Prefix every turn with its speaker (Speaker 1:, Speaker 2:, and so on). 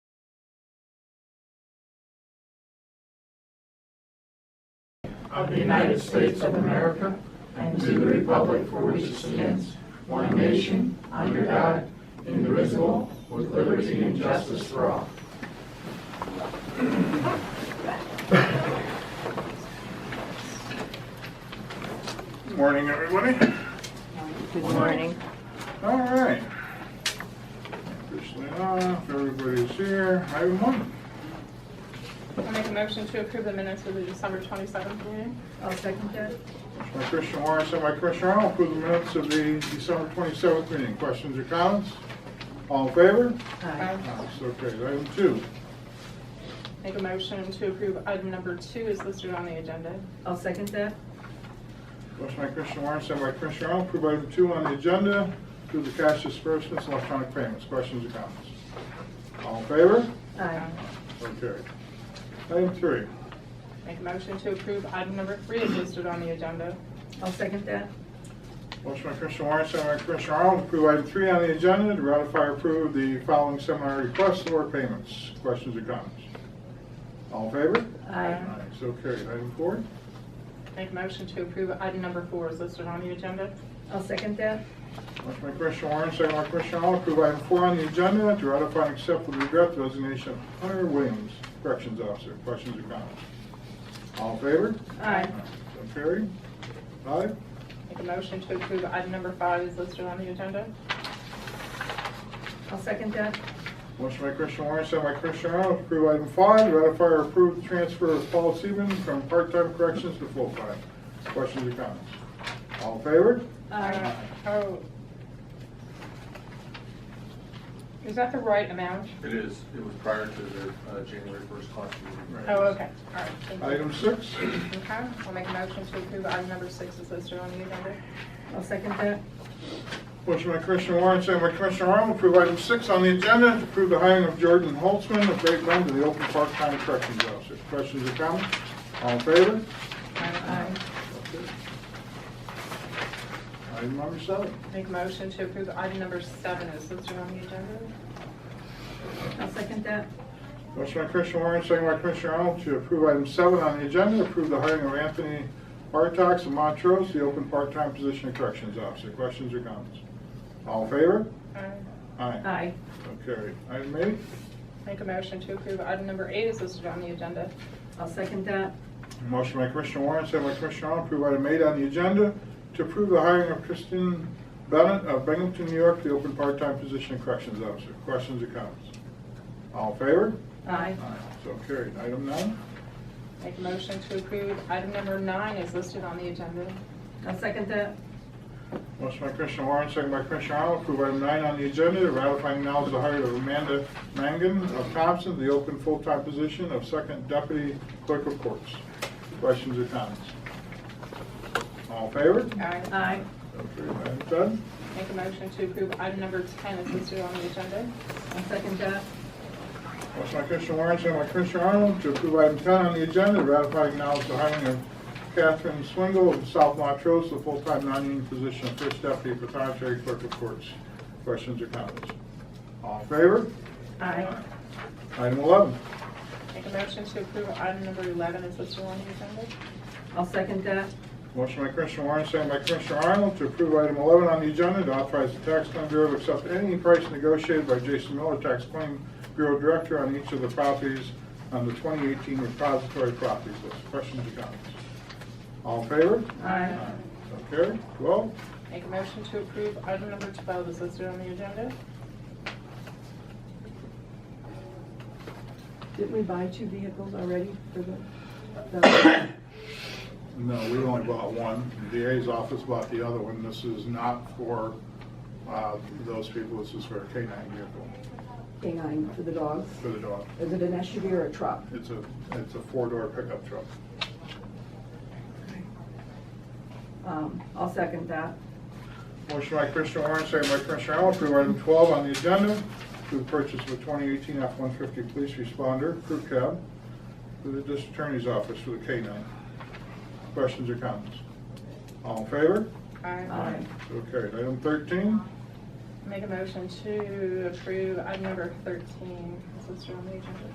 Speaker 1: of the United States of America and to the republic for which it stands, one nation, under God, indivisible, with liberty and justice for all.
Speaker 2: Morning, everybody.
Speaker 3: Good morning.
Speaker 2: All right. Officially off, everybody's here. Item one.
Speaker 4: I make a motion to approve the minutes of the December 27th meeting.
Speaker 3: I'll second that.
Speaker 2: Motion by Christian Warren, second by Christian Arnold, approve the minutes of the December 27th meeting. Questions or comments? All in favor?
Speaker 3: Aye.
Speaker 2: Aye, So carried. Item two.
Speaker 4: Make a motion to approve item number two is listed on the agenda.
Speaker 3: I'll second that.
Speaker 2: Motion by Christian Warren, second by Christian Arnold, approve item two on the agenda, approve the cash disbursements, and electronic payments. Questions or comments? All in favor?
Speaker 3: Aye.
Speaker 2: So carried. Item three.
Speaker 4: Make a motion to approve item number three is listed on the agenda.
Speaker 3: I'll second that.
Speaker 2: Motion by Commissioner Warren, second by Commissioner Arnold, to approve item three on the agenda, to ratify or approve the following seminar requests or payments. Questions or comments? All in favor?
Speaker 3: Aye.
Speaker 2: So carried. Item four.
Speaker 4: Make a motion to approve item number four is listed on the agenda.
Speaker 3: I'll second that.
Speaker 2: Motion by Commissioner Warren, second by Commissioner Arnold, to approve item four on the agenda, to ratify and accept with regret the resignation of Hunter Williams, Corrections Officer. Questions or comments? All in favor?
Speaker 3: Aye.
Speaker 2: So carried. Five.
Speaker 4: Make a motion to approve item number five is listed on the agenda.
Speaker 3: I'll second that.
Speaker 2: Motion by Christian Warren, second by Christian Arnold, to approve item five, ratify or approve the transfer of Paul Seaman from part-time corrections to full-time. Questions or comments? All in favor?
Speaker 3: Aye.
Speaker 4: Oh. Is that the right amount?
Speaker 5: It is, it was prior to the uh, January 1st class meeting.
Speaker 4: Oh, okay, all right. thank you.
Speaker 2: Item six,
Speaker 4: Okay, I'll make a motion to approve item number six is listed on the agenda.
Speaker 3: I'll second that.
Speaker 2: motion by Christian Warren, second by Christian Arnold, to approve item six on the agenda, to approve the hiring of Jordan Holtzman of Great Bend to the open part-time corrections officer. Questions or comments? All in favor?
Speaker 4: Aye.
Speaker 2: Item number seven.
Speaker 4: Make a motion to approve item number seven is listed on the agenda.
Speaker 3: I'll second that.
Speaker 2: Motion by Commissioner Warren, second by Commissioner Arnold, to approve item seven on the agenda, approve the hiring of Anthony Bartox of Montrose, the open part-time position of corrections officer. Questions or comments? All in favor?
Speaker 4: Aye.
Speaker 2: Aye.
Speaker 3: Aye.
Speaker 2: So carried. Item eight,
Speaker 4: Make a motion to approve item number eight is listed on the agenda.
Speaker 3: I'll second that.
Speaker 2: motion by Commissioner Warren, second by Commissioner Arnold, approve item eight on the agenda, to approve the hiring of Kristen Bennett of Binghamton, New York, the open part-time position of corrections officer. Questions or comments? All in favor?
Speaker 3: Aye.
Speaker 2: So carried. Item nine,
Speaker 4: Make a motion to approve item number nine is listed on the agenda.
Speaker 3: I'll second that.
Speaker 2: Motion by Commissioner Warren, second by Commissioner Arnold, approve item nine on the agenda, ratifying now the hire of Amanda Mangan of Thompson, the open full-time position of second deputy clerk of courts. Questions or comments? All in favor?
Speaker 4: Aye.
Speaker 3: Aye.
Speaker 2: So carried. Item ten.
Speaker 4: Make a motion to approve item number 10 is listed on the agenda.
Speaker 3: I'll second that.
Speaker 2: Motion by Commissioner Warren, second by Commissioner Arnold, to approve item ten on the agenda, ratifying now the hiring of Catherine Swingle of South Montrose, the full-time non-union position of first deputy pathonetary clerk of courts. Questions or comments? All in favor?
Speaker 3: Aye.
Speaker 2: Item 11.
Speaker 4: Make a motion to approve item number 11 is listed on the agenda.
Speaker 3: I'll second that.
Speaker 2: Motion by Commissioner Warren, second by Commissioner Arnold to approve item 11 on the agenda to authorize the Tax Claim Bureau to accept any price negotiated by Jason Miller, Tax Claim Bureau Director, on each of the properties on the 2018 repository properties list. Questions or comments? All in favor?
Speaker 3: Aye.
Speaker 2: So carried. 12.
Speaker 4: Make a motion to approve item number 12 is listed on the agenda.
Speaker 6: Didn't we buy two vehicles already for the- the,
Speaker 2: No, we only bought one. The DA's office bought the other one. This is not for uh, those people. This is for a K-9 vehicle
Speaker 6: canine, for the dogs?
Speaker 2: for the dog.
Speaker 6: Is it an SUV or a truck?
Speaker 2: It's a, it's a four-door pickup truck.
Speaker 3: Um, I'll second that.
Speaker 2: Motion by Commissioner Warren, second by Commissioner Arnold, approve item 12 on the agenda, to purchase of a 2018 F-150 police responder, crew cab, for the district attorney's office for the K-9. Questions or comments? All in favor?
Speaker 4: Aye.
Speaker 3: Aye.
Speaker 2: So carried. Item 13,
Speaker 4: Make a motion to approve item number 13 is listed on the agenda.